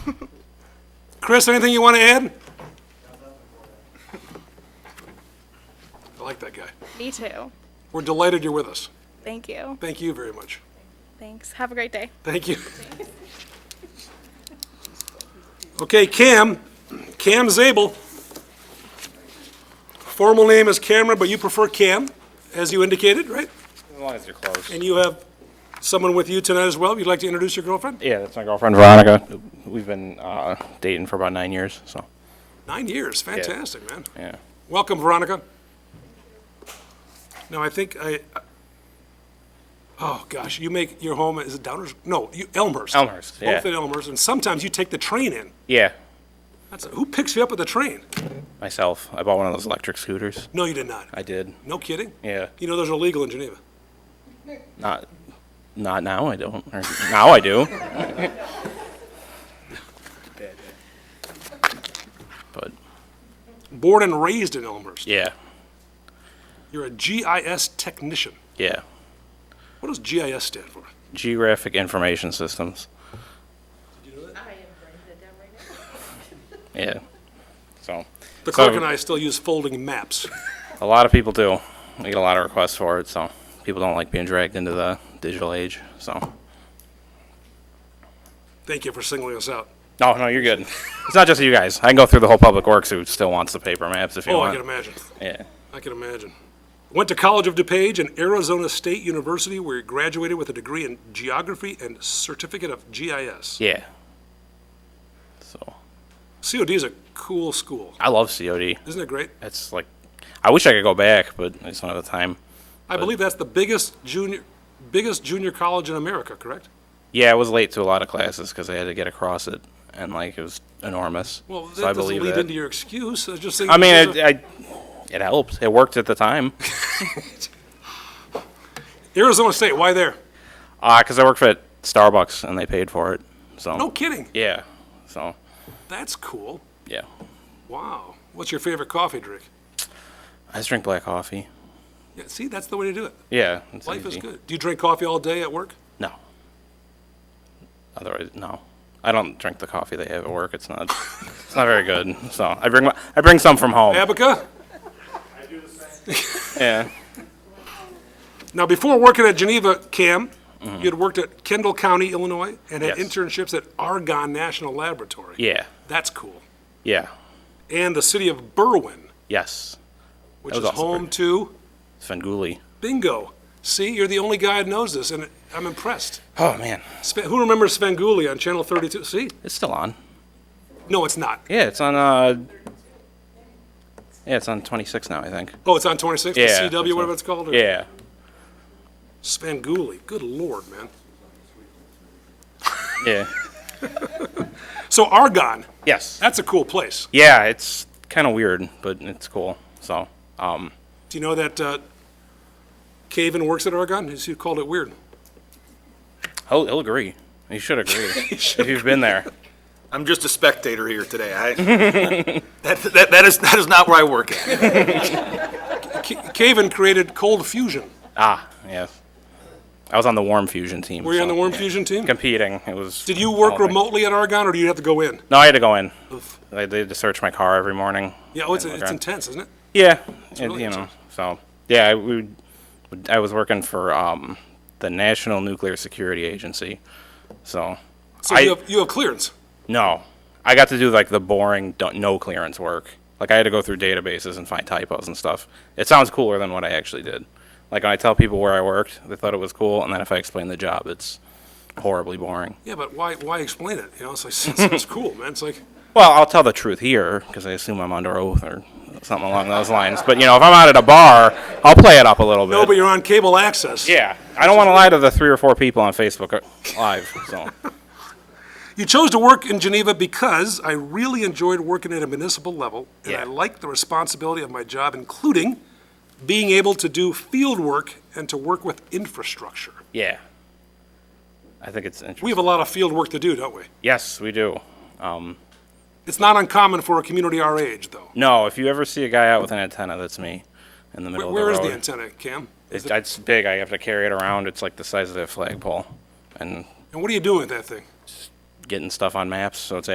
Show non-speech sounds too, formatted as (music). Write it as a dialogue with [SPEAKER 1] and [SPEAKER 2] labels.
[SPEAKER 1] Chris, anything you want to add? I like that guy.
[SPEAKER 2] Me too.
[SPEAKER 1] We're delighted you're with us.
[SPEAKER 2] Thank you.
[SPEAKER 1] Thank you very much.
[SPEAKER 2] Thanks. Have a great day.
[SPEAKER 1] Thank you. Okay, Cam, Cam Zabel. Formal name is Cameron, but you prefer Cam, as you indicated, right?
[SPEAKER 3] As long as you're close.
[SPEAKER 1] And you have someone with you tonight as well. You'd like to introduce your girlfriend?
[SPEAKER 3] Yeah, that's my girlfriend Veronica. We've been uh, dating for about nine years, so
[SPEAKER 1] Nine years, fantastic, man.
[SPEAKER 3] yeah.
[SPEAKER 1] Welcome, Veronica. Now, I think I, oh gosh, you make your home, is it Downers? No, you- Elmhurst.
[SPEAKER 3] Elmhurst, yeah.
[SPEAKER 1] Both at Elmhurst, and sometimes you take the train in.
[SPEAKER 3] Yeah,
[SPEAKER 1] That's, who picks you up at the train?
[SPEAKER 3] myself. I bought one of those electric scooters.
[SPEAKER 1] No, you did not.
[SPEAKER 3] I did.
[SPEAKER 1] No kidding?
[SPEAKER 3] Yeah.
[SPEAKER 1] You know, those are legal in Geneva.
[SPEAKER 3] Not, not now. I don't. Or now I do. but
[SPEAKER 1] Born and raised in Elmhurst.
[SPEAKER 3] yeah,
[SPEAKER 1] You're a GIS technician.
[SPEAKER 3] yeah.
[SPEAKER 1] What does GIS stand for?
[SPEAKER 3] Geographic information systems. Yeah. So.
[SPEAKER 1] The
[SPEAKER 3] so-
[SPEAKER 1] clerk and I still use folding maps.
[SPEAKER 3] A lot of people do. We get a lot of requests for it, so people don't like being dragged into the digital age. So,
[SPEAKER 1] Thank you for singling us out.
[SPEAKER 3] no, no, you're good. (laughs) it's not just you guys. I can go through the whole public works who still wants the paper maps if you
[SPEAKER 1] Oh, I
[SPEAKER 3] want.
[SPEAKER 1] can imagine.
[SPEAKER 3] yeah,
[SPEAKER 1] I can imagine. Went to College of DuPage and Arizona State University, where he graduated with a degree in geography and certificate of GIS.
[SPEAKER 3] yeah. So,
[SPEAKER 1] COD is a cool school.
[SPEAKER 3] I love COD.
[SPEAKER 1] Isn't it great?
[SPEAKER 3] It's like, I wish I could go back, but it's not the time.
[SPEAKER 1] I believe that's the biggest junior, biggest junior college in America, correct?
[SPEAKER 3] Yeah, I was late to a lot of classes because I had to get across it, and like it was enormous.
[SPEAKER 1] Well,
[SPEAKER 3] so I
[SPEAKER 1] that doesn't
[SPEAKER 3] believe
[SPEAKER 1] lead
[SPEAKER 3] that.
[SPEAKER 1] into your excuse. I just think.
[SPEAKER 3] I mean, it, I, it helped. It worked at the time. (laughs)
[SPEAKER 1] Arizona State, why there?
[SPEAKER 3] Ah, because I worked at Starbucks and they paid for it. So
[SPEAKER 1] No kidding.
[SPEAKER 3] Yeah. So,
[SPEAKER 1] That's cool.
[SPEAKER 3] yeah.
[SPEAKER 1] Wow. What's your favorite coffee drink?
[SPEAKER 3] I just drink black coffee.
[SPEAKER 1] Yeah, see, that's the way to do it.
[SPEAKER 3] Yeah. It's
[SPEAKER 1] Life is
[SPEAKER 3] easy.
[SPEAKER 1] good. Do you drink coffee all day at work?
[SPEAKER 3] No. Otherwise, no. I don't drink the coffee they have at work. It's not. it's not very good. So I bring my, I bring some from home.
[SPEAKER 1] Abaca?
[SPEAKER 3] Yeah.
[SPEAKER 1] Now, before working at Geneva Cam, you had worked at Kendall County, Illinois, and had
[SPEAKER 3] Mm-hmm. Yes.
[SPEAKER 1] internships at Argonne National Laboratory.
[SPEAKER 3] Yeah.
[SPEAKER 1] That's cool.
[SPEAKER 3] Yeah.
[SPEAKER 1] And the city of Berwyn,
[SPEAKER 3] Yes.
[SPEAKER 1] which
[SPEAKER 3] That
[SPEAKER 1] is
[SPEAKER 3] was also
[SPEAKER 1] home
[SPEAKER 3] pretty-
[SPEAKER 1] to
[SPEAKER 3] Svengoolie.
[SPEAKER 1] bingo. See, you're the only guy that knows this, and I'm impressed.
[SPEAKER 3] Oh man,
[SPEAKER 1] Sven, who remembers Svengoolie on Channel 32? See?
[SPEAKER 3] it's still on.
[SPEAKER 1] No, it's not.
[SPEAKER 3] Yeah, it's on. Uh. Yeah, it's on 26 now. I think.
[SPEAKER 1] Oh, it's on 26, the
[SPEAKER 3] Yeah.
[SPEAKER 1] CW,
[SPEAKER 3] that's
[SPEAKER 1] whatever
[SPEAKER 3] what-
[SPEAKER 1] it's called? or-
[SPEAKER 3] Yeah.
[SPEAKER 1] Svengoolie. Good lord, man.
[SPEAKER 3] Yeah.
[SPEAKER 1] So Argonne,
[SPEAKER 3] yes.
[SPEAKER 1] that's a cool place.
[SPEAKER 3] Yeah, it's kind of weird, but it's cool. So, um,
[SPEAKER 1] Do you know that uh, Caven works at Argonne? He's- He called it weird.
[SPEAKER 3] he'll, he'll agree. He should agree
[SPEAKER 1] (laughs)
[SPEAKER 3] if you've been there.
[SPEAKER 4] I'm just a spectator here today. I, (laughs) that, that, that is, that is not where I work at.
[SPEAKER 1] C- Caven created Cold Fusion.
[SPEAKER 3] Ah, yes. I was on the Warm Fusion team.
[SPEAKER 1] Were you on
[SPEAKER 3] so-
[SPEAKER 1] the Warm Fusion team?
[SPEAKER 3] Competing. It was.
[SPEAKER 1] Did you work
[SPEAKER 3] all-
[SPEAKER 1] remotely at Argonne, or do you have to go in?
[SPEAKER 3] No, I had to go in. They, they had to search my car every morning.
[SPEAKER 1] Yeah, oh, it's,
[SPEAKER 3] and look
[SPEAKER 1] it's
[SPEAKER 3] around.
[SPEAKER 1] intense, isn't it?
[SPEAKER 3] Yeah, it-
[SPEAKER 1] really
[SPEAKER 3] you know.
[SPEAKER 1] intense.
[SPEAKER 3] So yeah, I, we, would- I was working for um, the National Nuclear Security Agency. So,
[SPEAKER 1] So
[SPEAKER 3] I
[SPEAKER 1] you have, you have clearance.
[SPEAKER 3] no, I got to do like the boring don't, no clearance work. Like I had to go through databases and find typos and stuff. It sounds cooler than what I actually did. Like when I tell people where I worked, they thought it was cool, and then if I explain the job, it's horribly boring.
[SPEAKER 1] Yeah, but why, why explain it? You know, it's like, (laughs) it's, it's cool, man. It's like,
[SPEAKER 3] Well, I'll tell the truth here because I assume I'm under oath or something along those lines. But you know, if I'm out at a bar, I'll play it up a little bit.
[SPEAKER 1] no, oh, but you're on cable access.
[SPEAKER 3] yeah, I don't want to lie to the three or four people on Facebook uh, Live. So
[SPEAKER 1] You chose to work in Geneva because I really enjoyed working at a municipal level, and I
[SPEAKER 3] Yeah.
[SPEAKER 1] liked the responsibility of my job, including being able to do field work and to work with infrastructure.
[SPEAKER 3] yeah, I think it's interesting.
[SPEAKER 1] We have a lot of field work to do, don't we?
[SPEAKER 3] yes, we do. Um,
[SPEAKER 1] It's not uncommon for a community our age, though.
[SPEAKER 3] no, if you ever see a guy out with an antenna, that's me in the middle
[SPEAKER 1] Where
[SPEAKER 3] of
[SPEAKER 1] is
[SPEAKER 3] the road.
[SPEAKER 1] the antenna, Cam?
[SPEAKER 3] It, it's big. I have to carry it around. It's like the size of a flagpole, and
[SPEAKER 1] And what are you doing with that thing?
[SPEAKER 3] getting stuff on maps. So it's